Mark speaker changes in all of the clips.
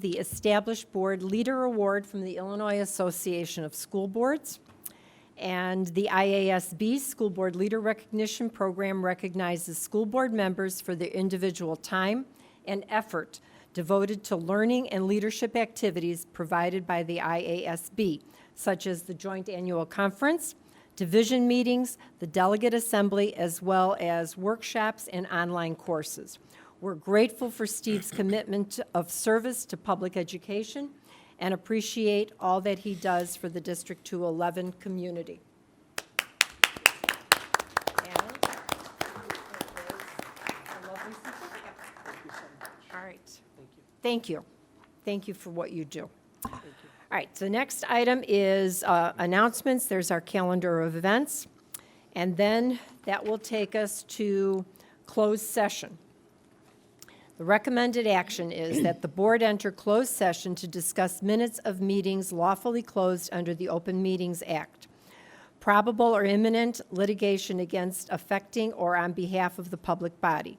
Speaker 1: the Established Board Leader Award from the Illinois Association of School Boards, and the IASB School Board Leader Recognition Program recognizes school board members for their individual time and effort devoted to learning and leadership activities provided by the IASB, such as the Joint Annual Conference, division meetings, the delegate assembly, as well as workshops and online courses. We're grateful for Steve's commitment of service to public education and appreciate all that he does for the District 211 community. And a lovely certificate. All right. Thank you. Thank you for what you do. All right, so next item is uh, announcements. There's our calendar of events. And then that will take us to closed session. The recommended action is that the board enter closed session to discuss minutes of meetings lawfully closed under the Open Meetings Act. Probable or imminent litigation against affecting or on behalf of the public body.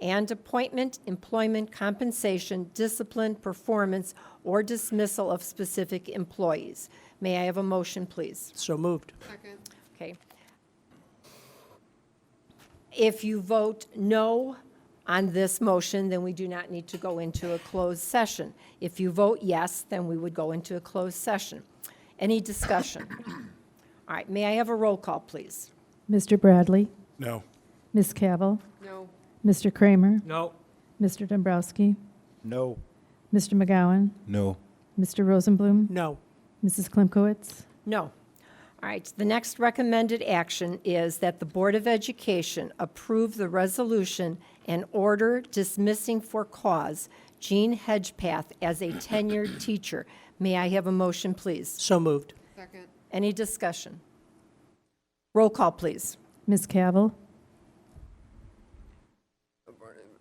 Speaker 1: And appointment, employment, compensation, discipline, performance, or dismissal of specific employees. May I have a motion, please?
Speaker 2: So moved.
Speaker 1: Okay. If you vote no on this motion, then we do not need to go into a closed session. If you vote yes, then we would go into a closed session. Any discussion? All right, may I have a roll call, please?
Speaker 3: Mr. Bradley?
Speaker 4: No.
Speaker 3: Ms. Cavill? No. Mr. Kramer?
Speaker 2: No.
Speaker 3: Mr. Dombrowski?
Speaker 4: No.
Speaker 3: Mr. McGowan?
Speaker 4: No.
Speaker 3: Mr. Rosenblum?
Speaker 2: No.
Speaker 3: Mrs. Klimkowitz?
Speaker 1: No. All right, the next recommended action is that the Board of Education approve the resolution and order dismissing for cause Jean Hedgepath as a tenured teacher. May I have a motion, please?
Speaker 2: So moved.
Speaker 1: Any discussion? Roll call, please.
Speaker 3: Ms. Cavill?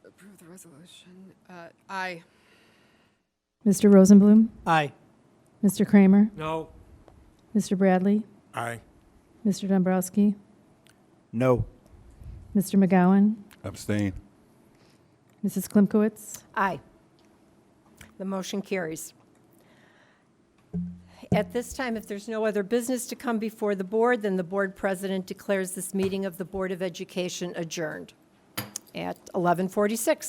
Speaker 5: Approve the resolution. Uh, Aye.
Speaker 3: Mr. Rosenblum?
Speaker 2: Aye.
Speaker 3: Mr. Kramer?
Speaker 2: No.
Speaker 3: Mr. Bradley?
Speaker 4: Aye.
Speaker 3: Mr. Dombrowski?
Speaker 4: No.
Speaker 3: Mr. McGowan?
Speaker 4: Abstain.
Speaker 3: Mrs. Klimkowitz?
Speaker 1: Aye. The motion carries. At this time, if there's no other business to come before the board, then the board president declares this meeting of the Board of Education adjourned at 11:46.